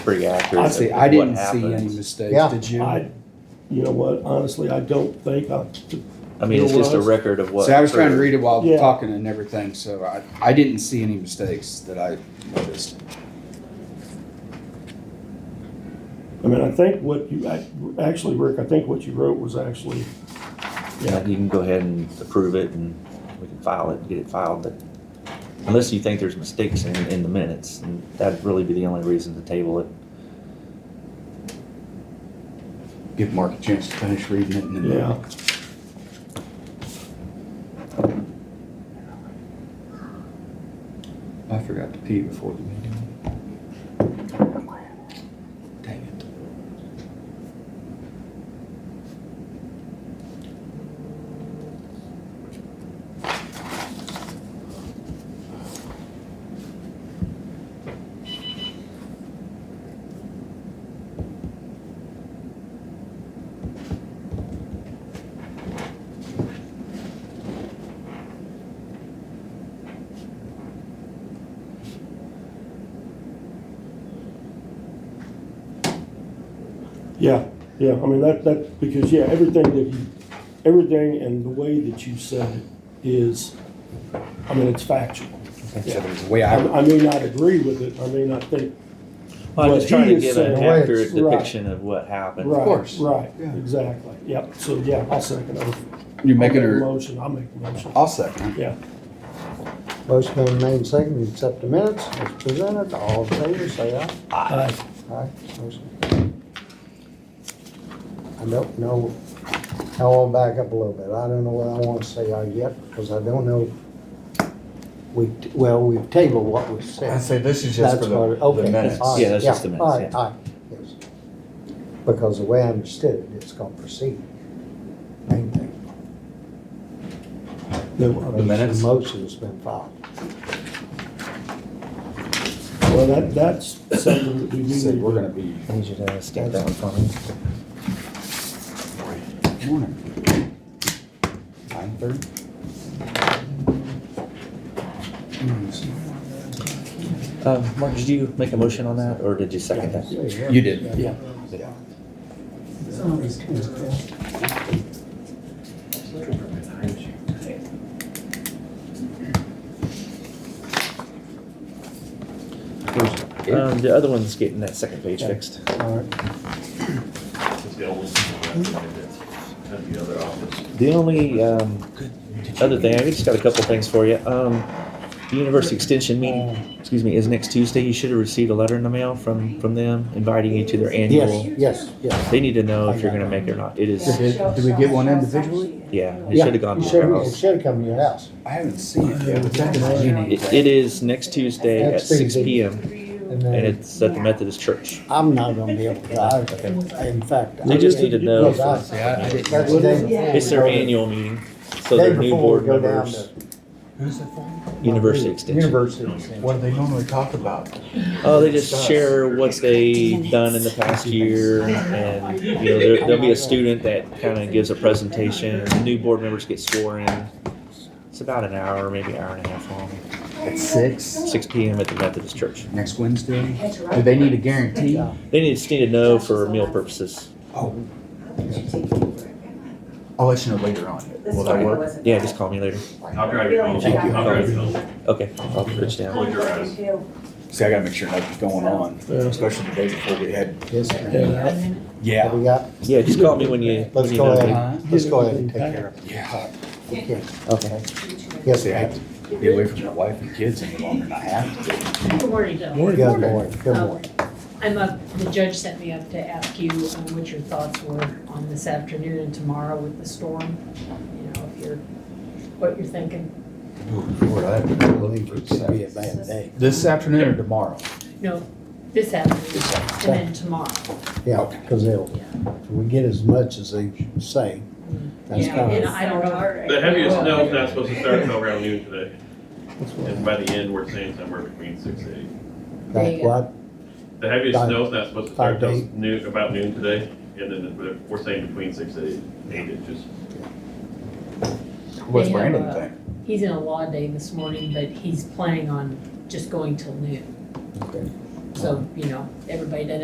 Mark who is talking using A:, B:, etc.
A: pretty accurate.
B: Honestly,
A: of
B: I
A: what
B: didn't see any
A: happens.
B: mistakes,
C: Yeah.
B: did you?
D: I, you know what, honestly, I don't think I,
A: I mean, it's just a record of what.
B: See, I was trying to
A: occurred.
B: read it while
D: Yeah.
B: talking and everything, so I, I didn't see any mistakes that I noticed.
D: I mean, I think what you, ac- actually, Rick, I think what you wrote was actually,
A: Yeah, you can go ahead and approve it and we can file it, and get it filed, but unless you think there's mistakes in, in the minutes, and that'd really be the only reason to table it.
B: Give Mark a chance to finish reading it and then.
D: yeah.
B: I forgot to pee before the meeting. Dang it.
D: Yeah, yeah, I mean, that, that, because, yeah, everything that you, everything and the way that you said it is, I mean, it's factual.
B: So there was a way
D: I,
B: I,
D: I may not agree with it, I may not think,
A: I'm
D: What
A: just trying
D: he
A: to
D: is
A: give an
D: saying- Right,
A: accurate
D: right.
A: depiction of what happened.
D: right,
B: course.
D: right,
B: Yeah.
D: exactly, yep, so, yeah, I'll second it.
B: you
D: I'll make
B: making
D: a
B: her,
D: motion, I'll make a motion,
B: I'll second.
D: yeah.
C: Motion been made and seconded, to accept the minutes as presented. All in favor, say aye.
D: Aye.
C: Aye. Motion. I don't know, I will back up a little bit. I don't know what I want to say aye yet because I don't know. We, well, we've tabled what we
E: I
C: said.
E: say this is just
C: That's
E: for
C: what,
E: the-
C: okay.
E: the minutes.
C: aye,
A: Yeah, that's just the minutes,
C: Aye,
A: yeah.
C: aye, yes. Because the way I understood it, it's gonna proceed. Main thing.
D: Well,
E: The minutes?
C: Motion's been filed.
D: that, that's something that we do
B: Said
D: need
B: we're
D: to
B: gonna be.
A: I need you to stamp that one for me.
B: Nine Hmm, thirty?
A: Um, Mark, did you make a motion on that, or did you second that?
B: You did.
D: Yeah.
B: Yeah.
A: Um, the other one's getting that second page fixed.
C: All right,
F: The old one, that's in the other office.
A: The only, um, other thing, I just got a couple things for you. Um, the University Extension meeting, excuse me, is next Tuesday. You should have received a letter in the mail from, from them inviting you to their
C: yes,
A: annual.
C: yes, yes.
A: They need to know if you're gonna make it or not. It is,
E: Did- did we get one individually?
A: yeah, it
C: Yeah,
A: should have gone
C: it
A: to your
C: should've- It
A: house.
C: should have come to your house.
B: I haven't seen it.
A: It, it is next Tuesday at
C: Next
A: six
C: Tuesday.
A: P M,
C: And
A: and
C: then
A: it's at the Methodist Church.
C: I'm not gonna be able to drive it. In fact.
A: They
C: I
A: just need
C: didn't
A: to know,
C: look out.
B: Yeah, I didn't.
C: That's the day before
A: it's
C: we
A: their
C: go-
A: annual meeting, so
C: Day
A: their new
C: before
A: board
C: we go down
A: members,
C: to.
E: Who's it for?
A: University Extension.
C: University Extension.
E: What do they normally talk about?
A: Oh, they just share what they've done in the past year, and you know, there, there'll be a student that kind of gives a presentation. and New board members get sworn in. It's about an hour, maybe hour and a half long.
E: At six?
A: Six p.m. at the Methodist Church.
B: Next Wednesday?
E: Do they need a guarantee?
C: Yeah.
A: They need just need to know for meal purposes.
B: Oh,
E: I'll let you know later on. Will that work?
A: Yeah, just call me later.
F: I'll drive you home.
B: Thank you.
F: I'll drive you home.
A: Okay, I'll reach down.
F: Close your eyes.
B: see, I gotta make sure nothing's going on, especially the day before we had.
C: Yes, ma'am. What
B: Yeah.
C: we got?
A: Yeah, just call me when you when
C: Let's
A: you
C: go
A: know.
C: ahead,
A: me.
B: Huh?
C: let's go ahead and take care of it.
B: Yeah.
C: We can.
A: Okay.
C: Yes,
B: See, I
C: ma'am.
B: have to be away from my wife and kids any longer than I have to.
G: Good morning, Joe.
C: Good morning, good
G: Um,
C: morning.
G: I'm up, the judge sent me up to ask you um, what your thoughts were on this afternoon and tomorrow with the storm. You know, if you're, what you're thinking.
E: Ooh, Lord, I haven't been looking
C: Believe
E: for
C: it could be a
E: this.
C: bad day.
E: This afternoon or tomorrow?
G: No, this afternoon and then tomorrow.
C: Yeah, because they'll, if we get as much as they say. That's
G: Yeah,
C: kind
G: and
C: of,
G: I don't know.
F: The heaviest snow is not supposed to start until around noon today. And by the end, we're saying somewhere between six and eight.
C: that's what,
F: The heaviest
C: Five-
F: snow is not supposed to start
C: five to
F: until
C: eight.
F: noon, about noon today. And then we're- we're saying between six and eight, eight inches.
E: What's
G: They have,
E: Brandon
G: uh,
E: think?
G: He's in a law day this morning, but he's planning on just going till noon.
C: Okay.
G: So, you know, everybody doesn't